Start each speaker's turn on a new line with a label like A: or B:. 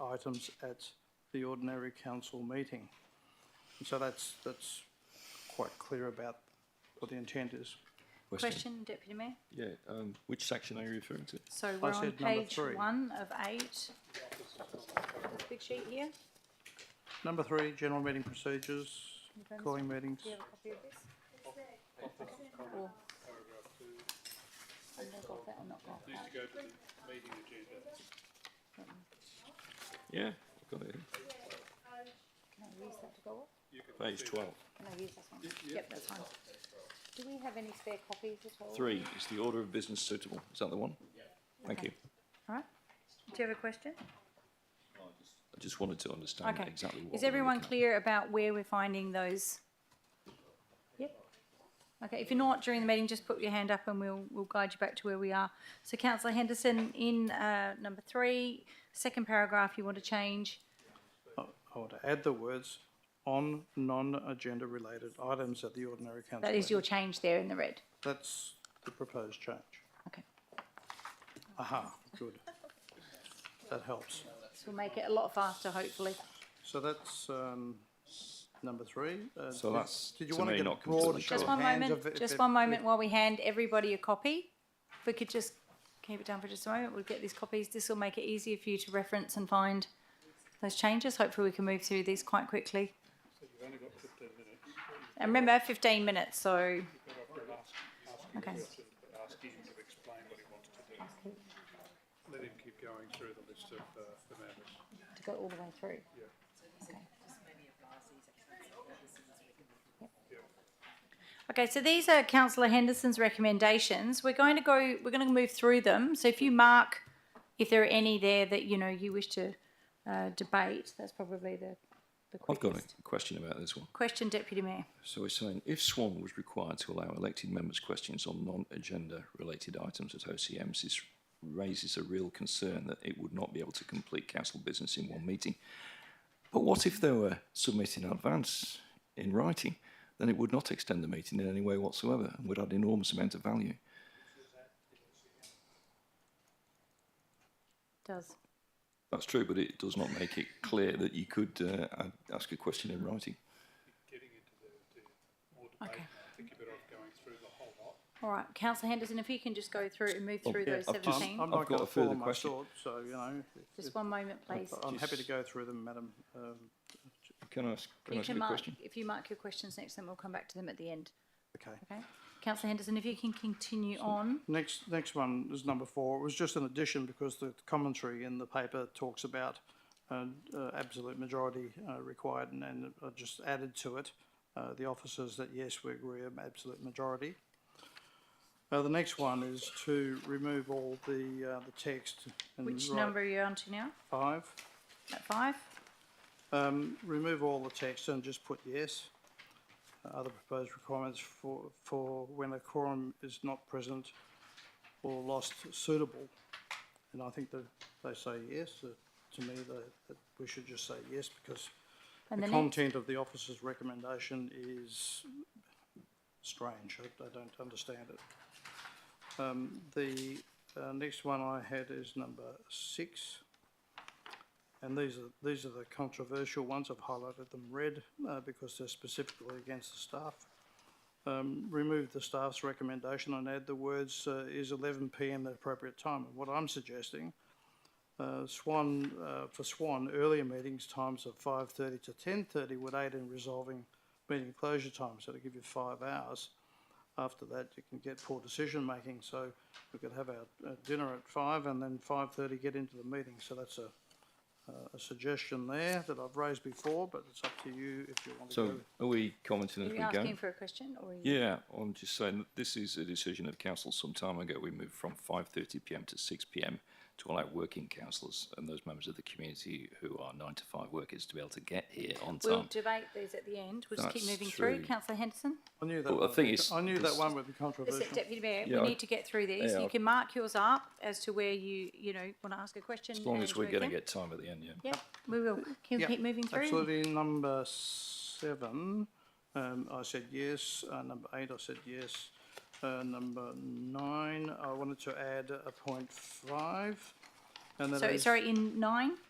A: items at the ordinary council meeting. And so that's, that's quite clear about what the intent is.
B: Question, Deputy Mayor?
C: Yeah, um, which section are you referring to?
B: So we're on
A: said number
B: page
A: three.
B: one of eight. Big sheet here.
A: Number three, general meeting procedures, calling meetings.
B: Do you have a copy of this? Or- I've not got that, I've not got that.
C: Yeah, I've got it.
B: Can I use that to go up?
C: Page twelve.
B: Can I use that one? Yep, that's fine. Do we have any spare copies at all?
C: Three is the order of business suitable. Is that the one? Thank you.
B: All right. Do you have a question?
C: I just wanted to understand
B: Okay.
C: exactly what.
B: Is
C: we're
B: everyone
C: looking
B: clear about where we're finding those? Yep. Okay, if you're not during the meeting, just put your hand up and we'll, we'll guide you back to where we are. So councillor Henderson, in, uh, number three, second paragraph, you want to change
A: I want to add the words on non-agenda related items at the ordinary council.
B: That is your
A: meeting.
B: change there in the red.
A: That's the proposed change.
B: Okay.
A: Aha, good. That helps.
B: This will make it a lot faster, hopefully.
A: So that's, um, number three. Uh,
C: So
A: did-
C: that's,
A: Did you
C: to
A: want to
C: me,
A: get a
C: not
A: broad
C: completely
A: show
B: Just
A: of
B: one
A: hands of
B: moment,
A: if
B: just
A: it-
B: one moment while we hand everybody a copy. If we could just keep it down for just a moment, we'll get these copies. This will make it easier for you to reference and find those changes. Hopefully, we can move through these quite quickly. And remember, fifteen minutes, so. Okay,
D: ask him to explain what he wants to do. Let him keep going through the list of uh, the matters.
B: to go all the way through. Okay. Okay, so these are councillor Henderson's recommendations. We're going to go, we're going to move through them. So if you mark, if there are any there that, you know, you wish to uh, debate, that's probably the, the
C: at. I've got a
B: quickest.
C: question about this one.
B: Question, Deputy Mayor.
C: So we're saying if Swan was required to allow elected members questions on non-agenda related items at OCMs, this raises a real concern that it would not be able to complete council business in one meeting. But what if they were submitted in advance in writing? Then it would not extend the meeting in any way whatsoever and would add enormous amount of value.
B: Does.
C: That's true, but it does not make it clear that you could uh, a- ask a question in writing.
D: Getting into the, the more
B: Okay.
D: debate, I think you're better off going through the whole lot.
B: All right, councillor Henderson, if you can just go through and move
C: Oh,
B: through
C: yeah,
B: those
C: I've just-
A: I'm, I'm
B: seventeen.
C: I've
A: not
C: got
A: going to
C: a further
A: follow my
C: question.
A: thought, so, you know,
B: Just one moment, please.
A: I'm happy to
C: Just-
A: go through them, madam, um,
C: Can I ask, can I
B: You
C: ask a
B: can mark,
C: question?
B: if you mark your questions next, then we'll come back to them at the end.
A: okay.
B: Okay. Councillor Henderson, if you can continue on.
A: Next, next one is number four. It was just an addition because the commentary in the paper talks about uh, uh, absolute majority uh, required, and, and I just added to it uh, the officers that yes, we agree an absolute majority. Uh, the next one is to remove all the uh, the text. And
B: Which
A: write
B: number are you on to now?
A: Five.
B: At five?
A: Um, remove all the text and just put yes. Uh, Other proposed requirements for, for when a quorum is not present or lost suitable. And I think that they say yes, uh, to me, that, that we should just say yes because
B: And
A: the
B: the next,
A: content of the officer's recommendation is strange. I, I don't understand it. Um, the uh, next one I had is number six. And these are, these are the controversial ones. I've highlighted them red uh, because they're specifically against the staff. Um, remove the staff's recommendation and add the words uh, is 11 p.m. the appropriate time. And what I'm suggesting uh, Swan, uh, for Swan, earlier meetings times of five thirty to ten thirty would aid in resolving meeting closure time, so to give you five hours. After that, you can get poor decision making, so we could have our uh, dinner at five and then five thirty get into the meeting, so that's a, uh, a suggestion there that I've raised before, but it's up to you if you want to
C: So
A: go.
C: are we commenting
B: are
C: as
B: you
C: we go?
B: asking for a question or? are you-
C: Yeah, I'm just saying that this is a decision of council some time ago. We moved from 5:30 p.m. to 6 p.m. to allow working councillors and those members of the community who are nine to five workers to be able to get here on
B: We'll
C: time.
B: debate these at the end. We'll just keep
C: um, That's
B: moving through.
C: true.
B: councillor Henderson?
A: I knew that
C: Well, I
A: one,
C: think
A: would-
C: it's-
A: I knew that
C: this-
A: one would be controversial.
B: Except Deputy Mayor,
C: Yeah,
B: we
C: I-
B: need to get through these.
C: yeah,
B: You
C: I-
B: can mark yours up as to where you, you know, want to ask a question.
C: As long as
B: and
C: we're
B: move
C: going to
B: them.
C: get time at the end, yeah.
B: Yeah, we will. Can we
A: Yep,
B: keep moving through?
A: Absolutely. Number seven, um, I said yes. Uh, number eight, I said yes. Uh, number nine, I wanted to add a point five. and that
B: So,
A: is-
B: sorry, in nine?